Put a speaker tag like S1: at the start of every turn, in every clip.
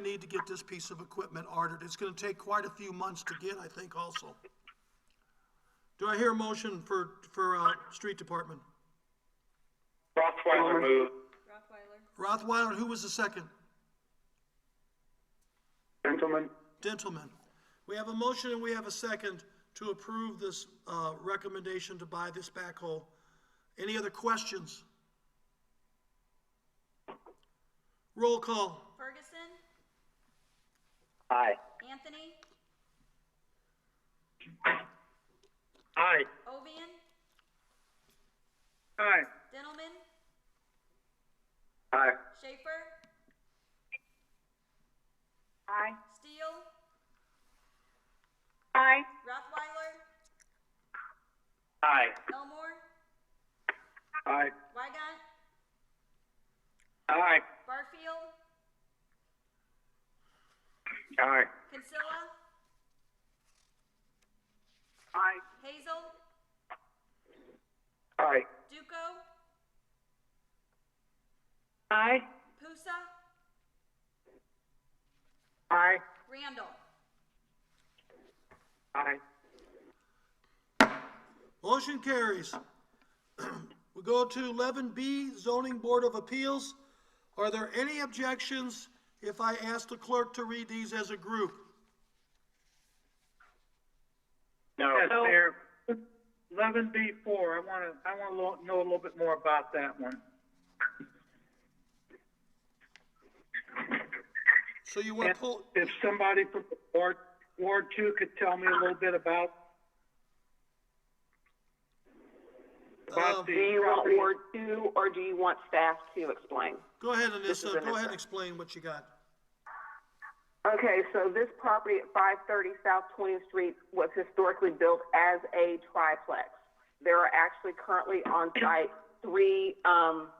S1: need to get this piece of equipment ordered. It's gonna take quite a few months to get, I think, also. Do I hear a motion for, for, uh, street department?
S2: Rothweiler move.
S3: Rothweiler,
S1: Rothweiler, who was the second?
S2: Gentlemen,
S1: Gentlemen, we have a motion and we have a second to approve this, uh, recommendation to buy this backhoe. Any other questions? Roll call.
S3: Ferguson,
S2: Aye.
S3: Anthony,
S2: Aye.
S3: Ovian,
S2: Aye.
S3: Dentelman,
S2: Aye.
S3: Schaefer.
S4: Aye.
S3: Steele,
S4: Aye.
S3: Rothweiler,
S2: Aye.
S3: Elmore,
S2: Aye.
S3: Weigant,
S2: Aye.
S3: Barfield,
S2: Aye.
S3: Kinsella,
S2: Aye.
S3: Hazel,
S2: Aye.
S3: Duco,
S4: Aye.
S3: Pusa,
S2: Aye.
S3: Randall.
S2: Aye.
S1: Motion carries. We go to eleven B, zoning board of appeals. Are there any objections if I ask the clerk to read these as a group?
S2: No.
S5: Yes, Mayor, eleven B four, I wanna, I wanna lo- know a little bit more about that one.
S1: So you wanna pull,
S5: If somebody from Ward, Ward Two could tell me a little bit about,
S1: Um, Oh.
S5: about
S4: Do you
S5: the
S4: want
S5: property.
S4: Ward two, or do you want staff to explain?
S1: go ahead,
S4: This is
S1: Anissa, go ahead and
S4: Anissa.
S1: explain what you got.
S4: Okay, so this property at five thirty South Twentieth Street was historically built as a triplex. There are actually currently on site three, um,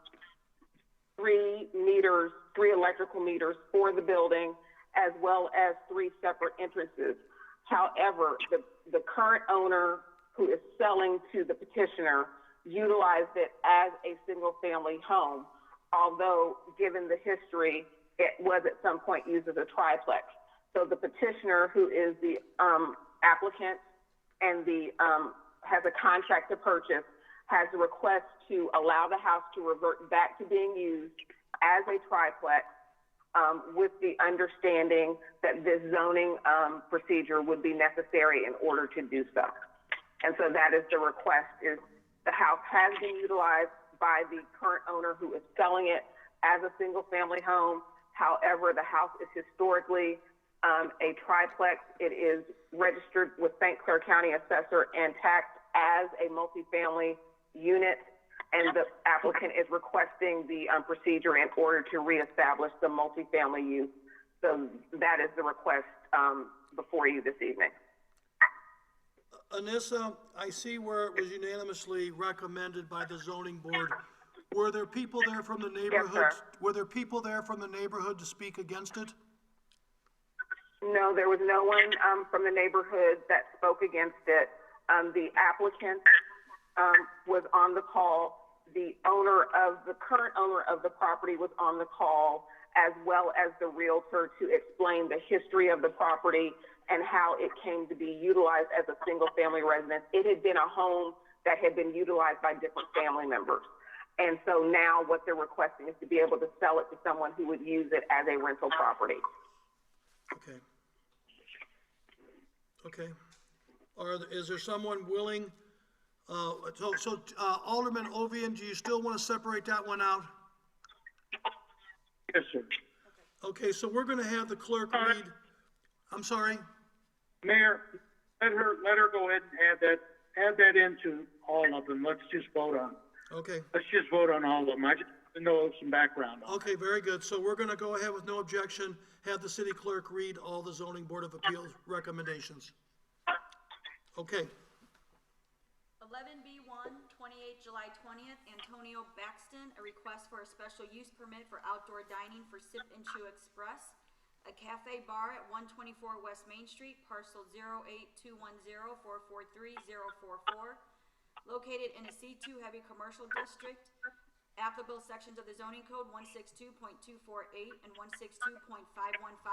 S4: three meters, three electrical meters for the building, as well as three separate entrances. However, the, the current owner who is selling to the petitioner utilized it as a single-family home, although, given the history, it was at some point used as a triplex. So the petitioner, who is the, um, applicant and the, um, has a contract to purchase, has a request to allow the house to revert back to being used as a triplex um, with the understanding that this zoning um, procedure would be necessary in order to do so. And so that is the request is the house has been utilized by the current owner who is selling it as a single family home. However, the house is historically um, a triplex. It is registered with St. Clair County Assessor and taxed as a multifamily unit. And the applicant is requesting the um, procedure in order to reestablish the multifamily use. So that is the request um, before you this evening.
S1: Anissa, I see where it was unanimously recommended by the zoning board. Were there people there from the neighborhood? Were there people there from the neighborhood to speak against it?
S4: No, there was no one um, from the neighborhood that spoke against it. Um, The applicant um, was on the call. The owner of, the current owner of the property was on the call, as well as the Realtor to explain the history of the property and how it came to be utilized as a single-family residence. It had been a home that had been utilized by different family members. And so now what they're requesting is to be able to sell it to someone who would use it as a rental property.
S1: Okay. Okay. Are, th- is there someone willing, uh, so, so uh, Alderman Ovian, do you still want to separate that one out?
S5: Yes, sir.
S1: Okay, so we're gonna have the clerk read, I'm sorry?
S5: Mayor, let her, let her go ahead and add that, add that into all of them, let's just vote on,
S1: Okay,
S5: let's just vote on all of them, I just want to know some background on it.
S1: okay, very good. So we're gonna go ahead with no objection, have the city clerk read all the zoning board of appeals recommendations. Okay,
S3: Eleven B one, twenty-eight July twentieth, Antonio Baxton, a request for a special use permit for outdoor dining for Sip and Chew Express, a cafe bar at one twenty-four West Main Street, parcel 08210443044, located in a C two heavy commercial district, applicable sections of the zoning code one six two point two four eight and one six two point five one five